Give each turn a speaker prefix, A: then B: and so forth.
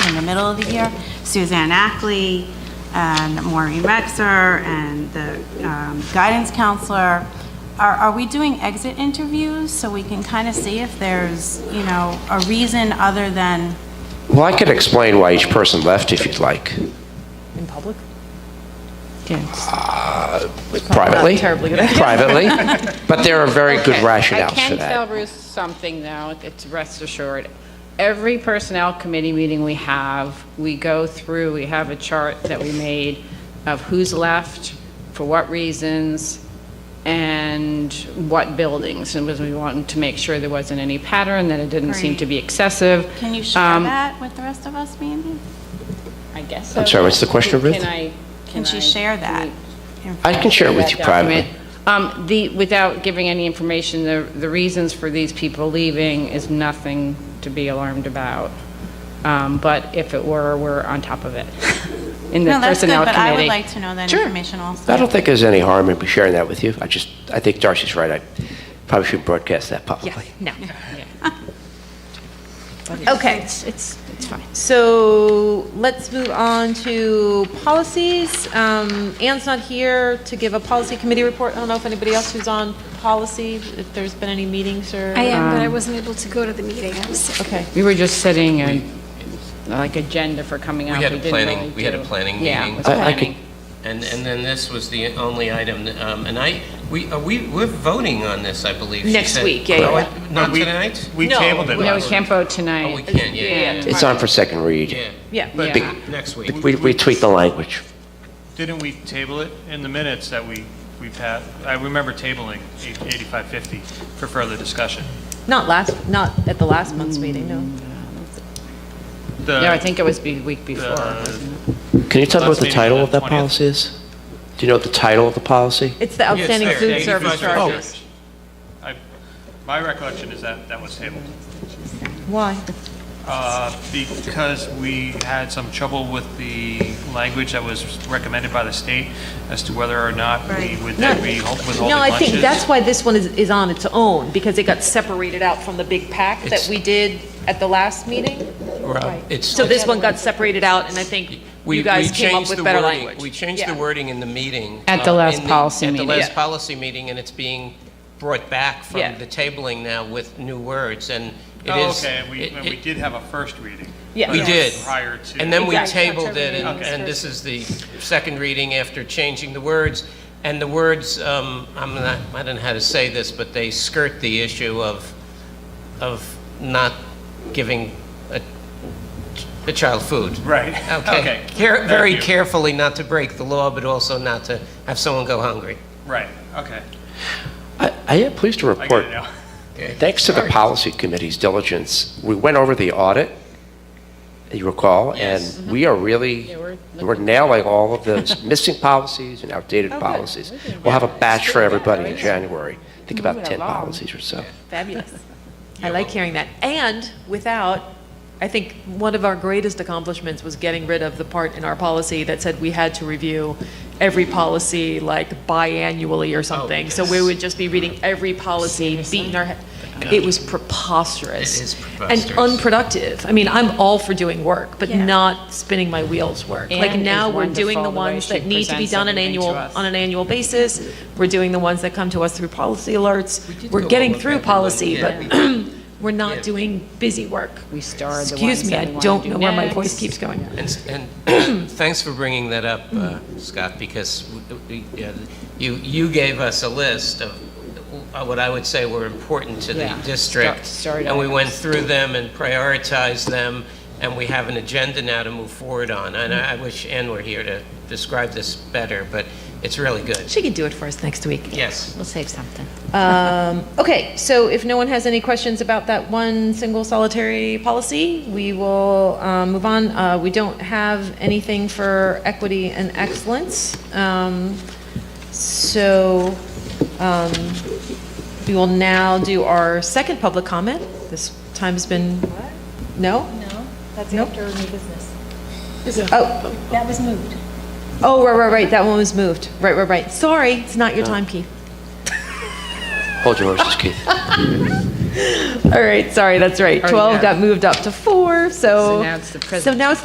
A: middle of the year, Suzanne Ackley and Maureen Rexer and the um, guidance counselor. Are, are we doing exit interviews so we can kind of see if there's, you know, a reason other than,
B: Well, I could explain why each person left if you'd like.
C: In public?
B: Privately?
C: terribly good idea.
B: Privately, but there are very good
D: Okay,
B: rationales for
D: I can
B: that.
D: tell Bruce something, though, it's rest assured. Every Personnel Committee meeting we have, we go through, we have a chart that we made of who's left, for what reasons, and what buildings, and was we wanted to make sure there wasn't any pattern, that it didn't seem to be excessive.
A: can you share
D: Um,
A: that with the rest of us maybe?
D: I guess
B: I'm
D: so.
B: sorry, what's the question, Ruth?
D: Can I?
A: Can she
D: I-
A: share that?
B: I can share it with you
D: that
B: privately.
D: document. Um, The, without giving any information, the, the reasons for these people leaving is nothing to be alarmed about. Um, But if it were, we're on top of it in the
A: No, that's good,
D: Personnel Committee.
A: but I would like to know that
D: Sure.
A: information also.
B: I don't think there's any harm in sharing that with you. I just, I think Darcy's right. I probably should broadcast that publicly.
C: No.
E: Okay,
C: It's, it's it's fine.
E: so let's move on to policies. Um, Anne's not here to give a policy committee report. I don't know if anybody else who's on policy, if there's been any meetings or.
F: I am, but I wasn't able to go to the meeting. I was sick.
E: Okay,
D: We were just setting a, like, agenda for coming out.
G: We had a
D: didn't
G: planning-
D: really
G: we had a
D: do.
G: planning
D: Yeah,
G: meeting.
D: it was
B: I- I could-
D: planning.
G: And, and then this was the only item, that, um, and I, we, are we, we're voting on this, I believe. she
D: Next
G: said.
D: week, yeah, yeah.
G: Oh, it- Not
H: we-
G: tonight?
H: We tabled it
D: No, we
H: last
D: can't vote tonight.
G: Oh, we can, yeah, yeah, yeah.
B: It's on for second read.
G: Yeah,
E: yeah.
B: Big-
D: Yeah.
G: next week.
B: We we tweak the language.
H: Didn't we table it in the minutes that we, we passed? I remember tabling eight- 8550 for further discussion.
E: Not last, not at the last month's meeting, no.
H: The-
D: No, I think it was the week before.
G: Uh,
H: the-
B: Can you tell me what the
H: Last meeting,
B: title of that
H: 20th.
B: policy is? Do you know what the title of the policy?
E: It's the
G: it's
E: outstanding
G: there,
E: food
G: yeah,
E: service
G: 85. Oh.
E: charges.
H: I- My recollection is that that was tabled.
E: Why?
H: Uh, Because we had some trouble with the language that was recommended by the state as to whether or not we
A: Right.
H: would
E: No,
H: then be hol- withholding
E: No, I
H: lunches.
E: think that's why this one is, is on its own, because it got separated out from the big pack that
G: It's-
E: we did at the last meeting.
G: Rob, it's-
E: So this one got separated out, and I think
G: We-
E: you guys
G: we
E: came up
G: changed
E: with
G: the
E: better
G: wording-
E: language.
G: We changed the
E: Yeah.
G: wording in the meeting.
D: At the
G: uh,
D: last
G: in
D: policy
G: At
D: meeting.
G: the last
E: Yeah.
G: policy meeting, and it's being brought back
E: Yeah.
G: from the tabling now with new words, and it
H: Oh,
G: is.
H: okay, and we,
G: it-
H: and we
G: it-
H: did have a first reading.
E: Yeah.
G: We did.
H: Prior to.
G: And then we
E: Exactly.
G: tabled it, and,
H: Okay.
G: and this is the second reading after changing the words. And the words, um, I'm not, I don't know how to say this, but they skirt the issue of, of not giving a, a child food.
H: Right.
G: Okay.
H: Okay.
G: Care-
H: Thank
G: Very
H: you.
G: carefully not to break the law, but also not to have someone go hungry.
H: Right, okay.
B: I I am pleased to
H: I
B: report.
H: get it now.
B: Thanks to the policy committee's diligence, we went over the audit, you recall, and we are really, mm-hmm. we're nailing all of those missing policies and outdated policies. We'll have a batch for everybody in January. Think about 10 policies or so.
E: Fabulous. I like hearing that. And without, I think one of our greatest accomplishments was getting rid of the part in our policy that said we had to review every policy like biannually
G: Oh,
E: or something. So we would just be reading
G: Uh,
E: every policy, beating our head. It was preposterous.
G: It is
E: And
G: preposterous.
E: unproductive. I mean, I'm all for doing work, but
F: Yeah.
E: not spinning my wheels work. Like
D: Anne is
E: now, we're doing
D: wonderful
E: the
D: the way
E: ones
D: she
E: that need to be
D: presents
E: done an
D: everything to
E: annual,
D: us.
E: on an annual basis. We're doing the ones that come to us through policy alerts.
G: did
E: We're
G: go
E: getting
G: over
E: through
G: that, didn't we?
E: policy,
G: Yeah,
E: but
G: we
E: we're not doing busy work.
D: We starred the
E: Excuse
D: ones
E: me,
D: that
E: I
D: we wanna
E: don't
D: do
E: know where my
D: next.
E: voice keeps going.
G: And, and thanks for bringing that up, uh, Scott, because we- we- yeah, you, you gave us a list of uh, what I would say were important to the
D: Yeah, start-
G: district.
D: start
G: And we went through them and prioritized them, and we have an agenda now to move forward on. And I I wish Ann were here to describe this better, but it's really good.
E: She can do it for us next week.
G: Yes.
C: We'll save something.
E: Um, Okay, so if no one has any questions about that one single solitary policy, we will um, move on. Uh, We don't have anything for equity and excellence. Um, So um, we will now do our second public comment. This time has been, no?
I: No, that's
E: Nope.
I: after new business.
E: Oh,
I: That was moved.
E: oh, right, right, right, that one was moved. Right, right, right. Sorry, it's not your time, Keith.
B: Hold your horses, Keith.
E: All right, sorry, that's right. 12 got moved up to four, so.
D: now it's the
E: So now it's